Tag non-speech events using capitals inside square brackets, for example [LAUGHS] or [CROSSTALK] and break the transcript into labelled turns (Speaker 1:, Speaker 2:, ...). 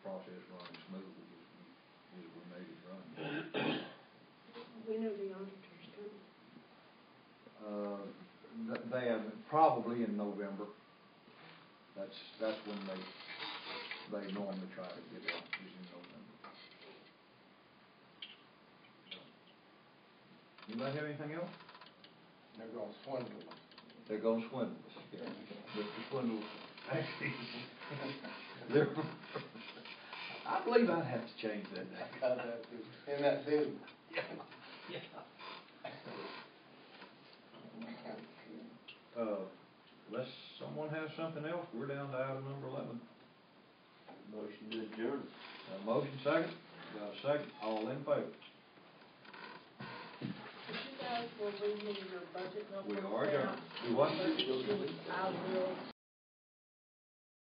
Speaker 1: Uh, probably in November. That's, that's when they, they normally try to get out, is in November. Anybody have anything else?
Speaker 2: They're gonna swindle them.
Speaker 1: There goes Swindles, yeah, Mr. Swindles. [LAUGHS] There, [LAUGHS] I believe I'd have to change that
Speaker 2: I
Speaker 1: name.
Speaker 2: got that too. In that business.
Speaker 1: Uh, unless someone has something else, we're down to item number eleven.
Speaker 3: Motion to adjourn.
Speaker 1: Got a motion second, got a second, all in favor?
Speaker 4: Could you guys will read me your budget number?
Speaker 1: We are adjourned. Do what?
Speaker 4: Budget sheet. I will